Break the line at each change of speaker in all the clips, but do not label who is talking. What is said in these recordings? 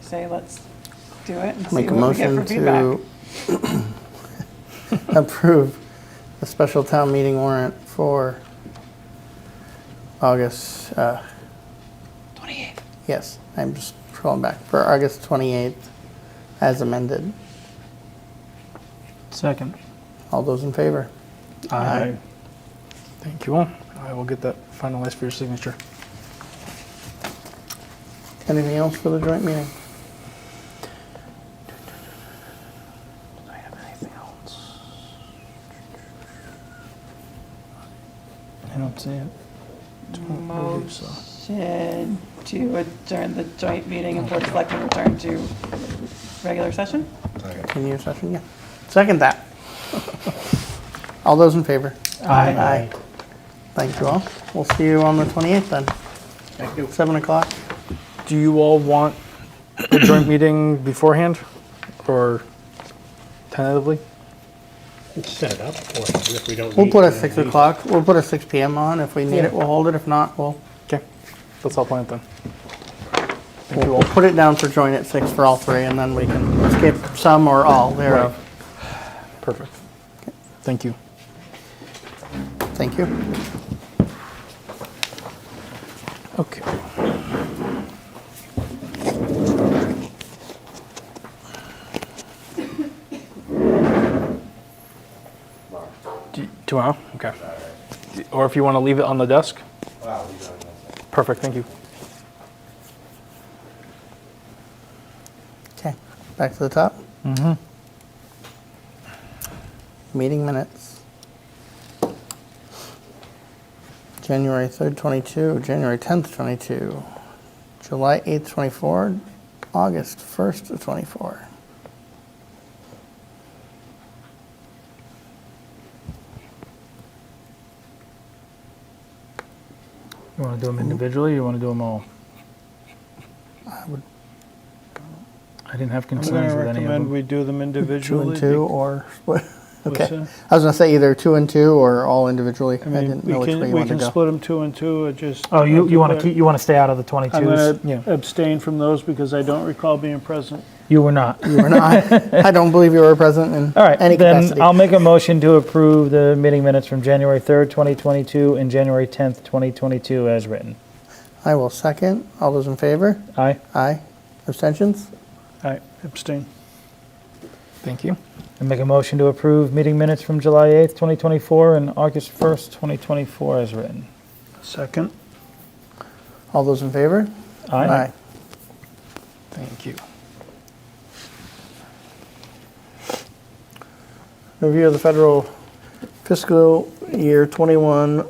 say, let's do it and see
Make a
what we get for
motion
feedback.
to approve the special town meeting warrant for August, uh,
28th.
yes, I'm just scrolling back, for August 28th as amended.
Second.
All those in favor? Aye.
Thank you all. I will get that finalized for your signature.
Anything else for the joint meeting?
Do I have anything else? I don't see it. Don't believe so.
Motion to adjourn the joint meeting and Board of Selectmen return to regular session?
Continue session, yeah. Second that. All those in favor? Aye. Thank you all. We'll see you on the 28th then. Thank you. 7 o'clock.
Do you all want the joint meeting beforehand or tentatively?
Set it up for us if we don't.
We'll
need
put a
to.
6 o'clock, we'll put a 6 PM on. If we need
Yeah.
it, we'll hold it. If not, we'll,
Okay, let's all plan it then. Thank you
we'll
all.
put it down for joint at 6 for all three and then we can skip some or all thereof.
Perfect. Thank you.
Thank you.
Okay. Do- Tomorrow? Okay. D- Or if you want to leave it on the desk? Perfect, thank you.
Okay, back to the top.
Mm-hmm.
Meeting minutes. January 3rd, 22, January 10th, 22, July 8th, 24, August 1st to 24.
You want to do them individually, or you want to do them all?
I would
I didn't have
I'm going
concerns
to
with any of
recommend
them.
we do them
two
individually.
and two or, what?
What's
okay.
that?
I was gonna say either two and two or all individually. I
I mean,
didn't know
we
which way
can,
you
we
wanted
can
to go.
split them two and two, or just.
Oh, you, you want to keep, you want to stay out of the
I'm
22s?
going
yeah.
to abstain from those because I don't recall being present.
You were not.
You were not, I don't believe you were present in
All right,
any
then
capacity.
I'll make a motion to approve the meeting minutes from January 3rd, 2022 and January 10th, 2022 as written.
I will second. All those in favor?
Aye?
Aye. Abstentions?
I abstain.
Thank you.
And make a motion to approve meeting minutes from July 8th, 2024 and August 1st, 2024 as written.
Second.
All those in favor?
Aye?
Thank you.
Review of the federal fiscal year 21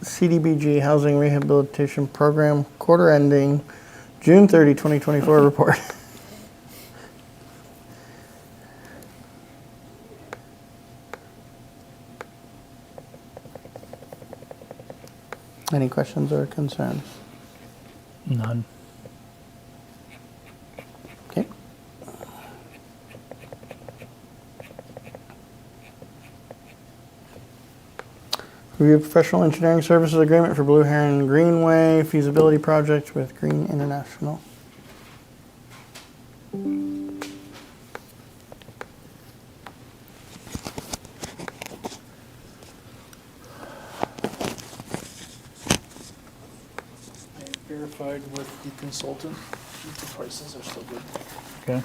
CDBG Housing Rehabilitation Program quarter ending June 30, 2024 report. Any questions or concerns?
None.
Okay. Review professional engineering services agreement for Blue Heron Greenway feasibility project with Green International.
I verified with the consultant, the prices are still good.
Okay.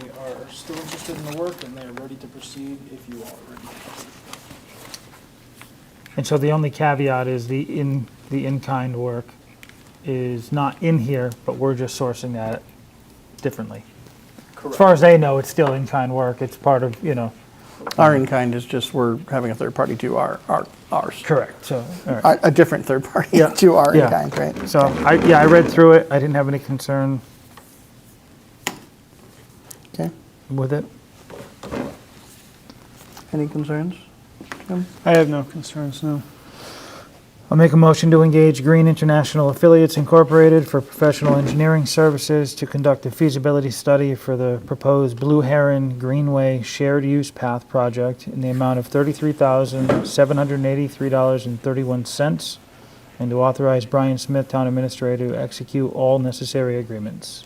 They are still interested in the work and they are ready to proceed if you are ready.
And so the only caveat is the in, the in-kind work is not in here, but we're just sourcing that differently. As far as they know, it's still in-kind work. It's part of, you know.
Our in-kind is just we're having a third party do our, our ours.
Correct. So, all right.
A, a different third party do our
Yeah.
in-kind, right?
So I, yeah, I read through it. I didn't have any concern
Okay.
with it.
Any concerns? Jim?
I have no concerns, no.
I'll make a motion to engage Green International Affiliates Incorporated for professional engineering services to conduct a feasibility study for the proposed Blue Heron Greenway Shared Use Path project in the amount of $33,783.31 and to authorize Brian Smith, Town Administrator, to execute all necessary agreements.